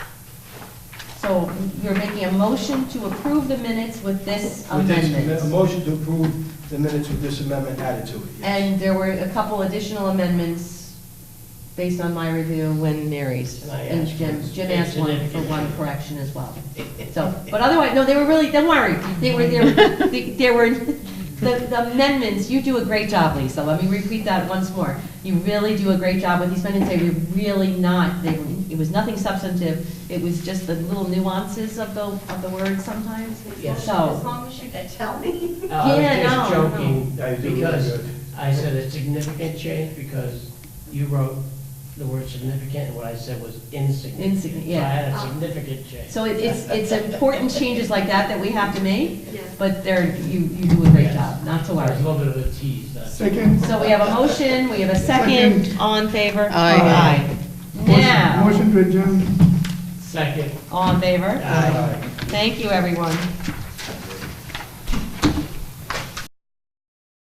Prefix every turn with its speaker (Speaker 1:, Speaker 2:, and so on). Speaker 1: So you're making a motion to approve the minutes with this
Speaker 2: With this A
Speaker 1: amendment.
Speaker 2: motion to approve the minutes with this amendment added to it, yes.
Speaker 1: And there were a couple additional amendments based on my review when Mary's.
Speaker 3: And I
Speaker 1: And
Speaker 3: asked
Speaker 1: Jim,
Speaker 3: for-
Speaker 1: Jim asked one for
Speaker 3: insignificant.
Speaker 1: one correction as well. So, but otherwise, no, they were really, don't worry, they were, they were, they- they were, the the amendments, you do a great job, Lisa, let me repeat that once more. You really do a great job with these amendments, they were really not, they, were- it was nothing substantive, it was just the little nuances of the, of the words sometimes.
Speaker 3: Yes.
Speaker 4: As
Speaker 1: So,
Speaker 4: long as you can tell me.
Speaker 3: Uh, I was
Speaker 1: Yeah,
Speaker 3: just
Speaker 1: no,
Speaker 3: joking,
Speaker 2: no. I do
Speaker 3: because
Speaker 2: remember it.
Speaker 3: I said a significant change, because you wrote the word significant, and what I said was insignificant.
Speaker 1: Insignificant,
Speaker 3: So I
Speaker 1: yeah.
Speaker 3: had a significant change.
Speaker 1: so it- it's, it's important changes like that that we have to make,
Speaker 4: Yes.
Speaker 1: but they're, you, you do a great
Speaker 3: Yes.
Speaker 1: job, not to
Speaker 3: It was
Speaker 1: worry.
Speaker 3: a little bit of a tease, that's.
Speaker 5: Second.
Speaker 1: So we have a motion, we have a second, all in favor?
Speaker 5: Aye.
Speaker 1: Aye. Now,
Speaker 5: Motion to adjourn.
Speaker 3: Second.
Speaker 1: all in favor?
Speaker 3: Aye.
Speaker 2: Aye.
Speaker 1: Thank you, everyone.